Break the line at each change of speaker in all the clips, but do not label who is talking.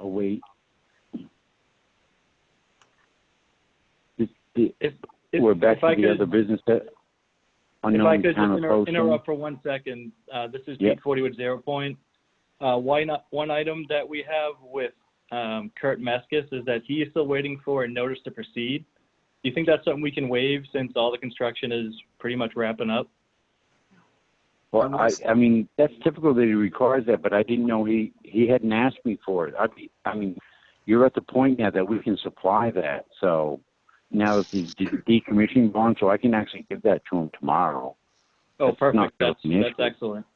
wait. This, the,
If, if,
we're back
if I
to the
could-
other business that
If I
unknown
could just
time
inter-
approaching.
interrupt for one second, uh, this is
Yeah.
Pete Forty with Zero Point. Uh, why not, one item that we have with, um, Kurt Meskis is that he is still waiting for a notice to proceed. Do you think that's something we can waive since all the construction is pretty much wrapping up?
Well, I, I mean, that's typical that he requires that, but I didn't know he, he hadn't asked me for it. I'd be, I mean, you're at the point now that we can supply that, so now it's the de- decommissioning bond, so I can actually give that to him tomorrow.
Oh,
That's not
perfect. That's,
an issue.
that's excellent.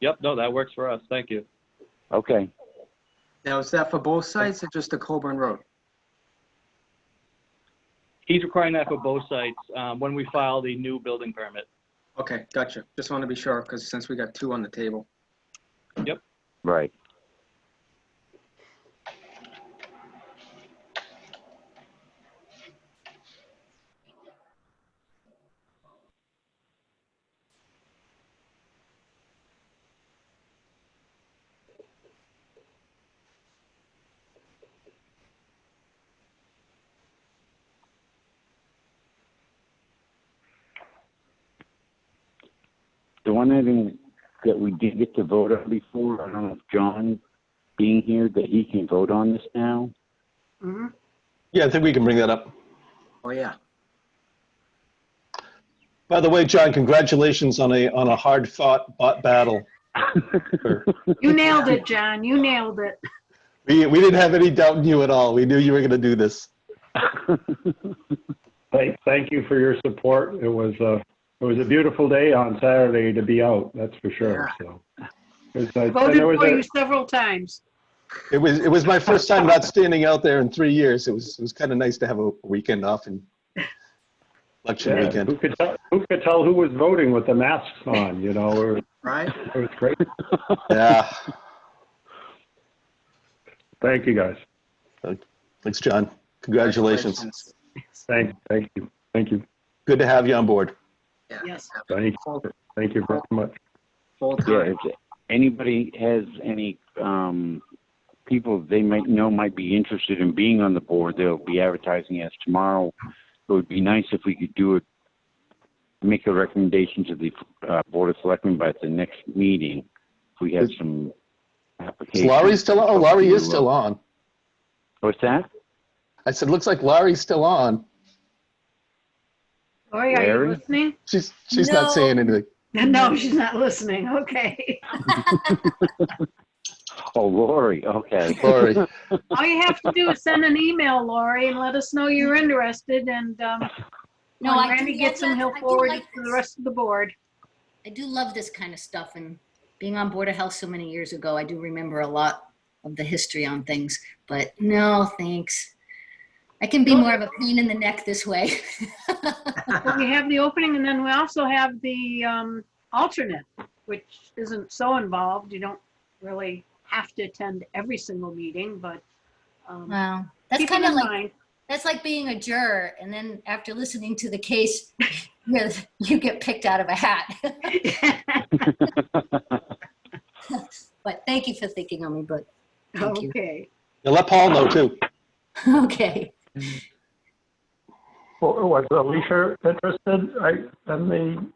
Yep, no, that works for us. Thank you.
Okay,
Now, is that for both sites or just the Colburn Road?
He's requiring that for both sites, um, when we file the new building permit.
Okay, gotcha. Just want to be sure, because since we got two on the table.
right. The one item that we did get to vote on before, I don't know if John being here, that he can vote on this now.
Yeah, I think we can bring that up.
Oh, yeah.
By the way, John, congratulations on a on a hard fought battle. Sure.
You nailed it, John. You nailed it.
We we didn't have any doubt in you at all. We knew you were going to do this.
Thank, thank you for your support. It was a, it was a beautiful day on Saturday to be out, that's for sure, so. It was nice. And
Voted
there was
for
a-
you several times.
It was it was my first time not standing out there in three years. It was it was kind of nice to have a weekend off and election
yeah, Who
weekend.
could tell, who could tell who was voting with the masks on, you know, or, it
Right?
was great.
Yeah.
Thank you, guys.
Thanks, John. Congratulations.
Thank, thank you, thank you,
Good to have you on board.
Yeah.
Yes.
thank,
Full-
thank you very much.
Full
Yeah,
time.
if anybody has any, um, people they might know might be interested in being on the board, they'll be advertising as tomorrow. It would be nice if we could do it, make a recommendation to the, uh, Board of Selectmen by the next meeting. If we have some
Is
applications.
Laurie still on? Oh, Laurie is still on.
What's that?
I said, looks like Laurie's still on.
Lori, are
Larry?
you listening?
She's she's not saying anything.
No, she's not listening. Okay.
Oh, Lori, okay.
Laurie.
All you have to do is send an email, Lori, and let us know you're interested and, um,
No,
when
I do
Randy
love
gets them,
that.
he'll
I do
forward
like
it to the
this.
rest of the board.
I do love this kind of stuff and being on Board of Health so many years ago, I do remember a lot of the history on things, but no, thanks. I can be more of a pain in the neck this way.
Well, We have the opening and then we also have the, um, alternate, which isn't so involved. You don't really have to attend every single meeting, but, um,
Wow. That's
keep it
kind of
in
like,
mind.
that's like being a juror and then after listening to the case, you're- you get picked out of a hat. But thank you for thinking on me, but thank you.
Okay.
Yeah, let Paul know too.
Okay.
Well, Was Alicia interested, I, in the,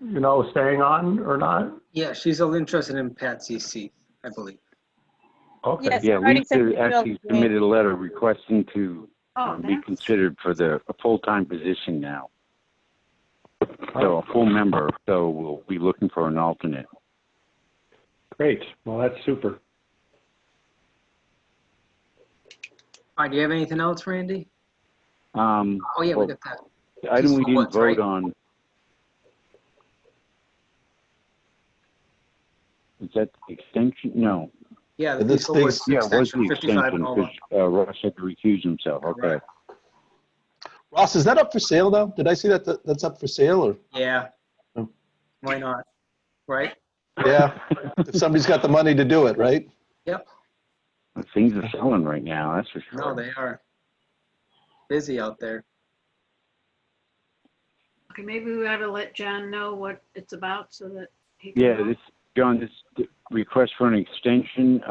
you know, staying on or not?
Yeah, she's all interested in Patsy's seat, I believe.
Okay,
Yes.
Yeah,
Already sent
Lisa
the bill
actually
to me.
submitted a letter requesting to
Oh,
um, be
that's,
considered for the, a full-time position now. So a full member, so we'll be looking for an alternate.
great, well, that's super.
All right, do you have anything else, Randy?
Um,
Oh, yeah,
Well,
we got that.
the item we
Peaceful
didn't
ones, right?
vote on. Is that the extension? No.
Yeah, the
This
Peaceful
thing's-
Woods
Yeah, it was the
extension, 55
extension,
and over.
because uh, Ross had to recuse himself, okay.
Correct.
Ross, is that up for sale now? Did I see that that- that's up for sale or?
Yeah.
Oh.
Why not? Right?
Yeah, if somebody's got the money to do it, right?
Things are selling right now, that's for sure.
No, they are busy out there.
okay, maybe we ought to let John know what it's about so that he can.
Yeah,
help.
this, John, this request for an extension,